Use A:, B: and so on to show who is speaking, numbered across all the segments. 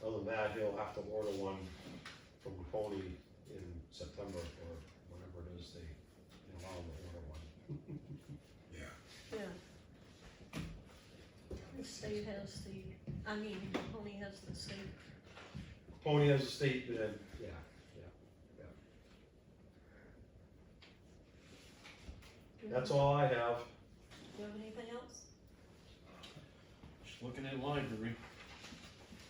A: he'll have to order one from Coney in September or whenever it is they they allow him to order one.
B: Yeah.
C: Yeah. The state has the, I mean, only has the state,
A: Pony has a state, but then, yeah, yeah, yeah. That's all I have.
C: do you have anything else?
D: Just looking at library,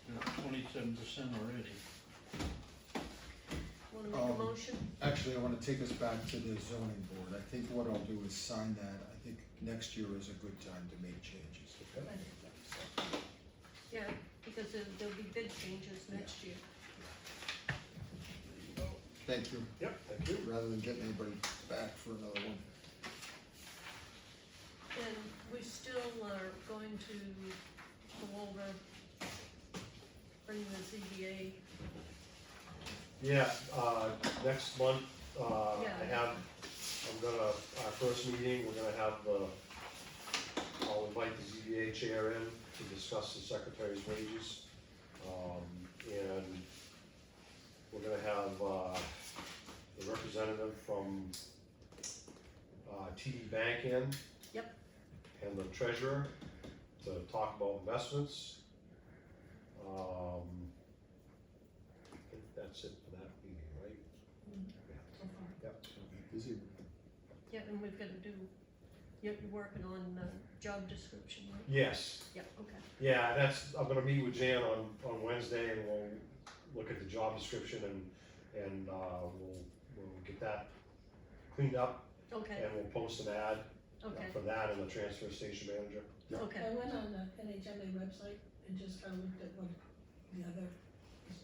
D: they're at twenty-seven percent already.
C: Wanna make a
E: Um,
C: motion?
E: Actually, I wanna take us back to the zoning board, I think what I'll do is sign that, I think next year is a good time to make changes.
C: Yeah, because there- there'll be big changes next year.
E: Thank you,
A: Yep, thank you.
E: rather than getting anybody back for another one.
C: And we still are going to go over bringing the ZBA,
A: Yeah, uh, next month, uh, I
C: Yeah.
A: have, I'm gonna, our first meeting, we're gonna have the, I'll invite the ZBA chair in to discuss the secretary's wages. Um, and we're gonna have, uh, the representative from, uh, TD Bank in.
C: Yep.
A: And the treasurer to talk about investments. Um, I think that's it for that meeting, right?
C: Mm-hmm.
E: Busy.
C: yeah, and we've gotta do, you're working on the job description, right?
A: Yes,
C: Yeah, okay.
A: yeah, that's, I'm gonna meet with Jan on, on Wednesday and we'll look at the job description and, and, uh, we'll, we'll get that cleaned up
C: Okay,
A: and we'll post an ad
C: okay,
A: for that and the transfer station manager.
C: okay,
F: I went on the NHMA website and just kind of looked at what the other,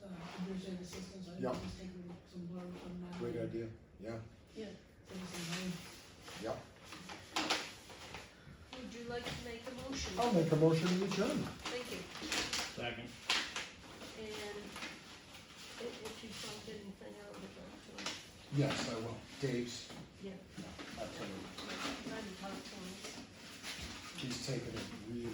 F: uh, division assistants, I
E: Yeah.
F: just taking some blurb from that.
E: Great idea, yeah,
F: There was some name.
E: yeah.
C: would you like to make a motion?
E: I'll make a motion to adjourn.
C: Thank you.
D: Second.
C: And if if you don't get anything out of it,
E: Yes, I will, Dave's.
C: Yeah.
E: Absolutely,
C: I'll, I'll talk to him.
E: he's taken it really